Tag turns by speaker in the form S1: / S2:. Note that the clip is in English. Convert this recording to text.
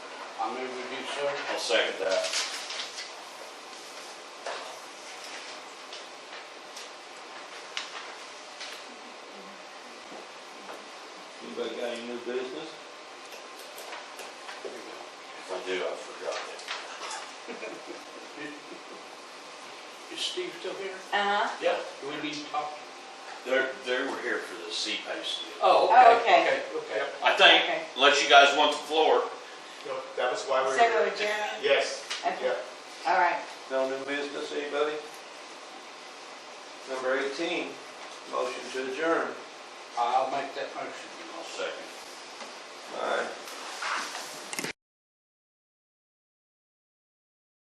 S1: I move we do so.
S2: I'll second that.
S3: Anybody got any new business?
S2: If I do, I forgot it.
S1: Is Steve still here?
S4: Uh-huh.
S1: Yeah. Do we need to talk?
S2: They're, they were here for the sea paste deal.
S1: Oh,
S4: Oh,
S1: okay.
S4: okay.
S1: Okay, okay.
S2: I think,
S4: Okay.
S2: unless you guys want the floor,
S5: No, that was why we
S4: So
S5: were.
S4: go with Jeremy?
S5: Yes,
S4: Okay,
S5: yeah.
S4: all right.
S3: No new business, anybody? Number eighteen, motion to adjourn.
S1: I'll make that motion.
S2: I'll second.
S3: All right,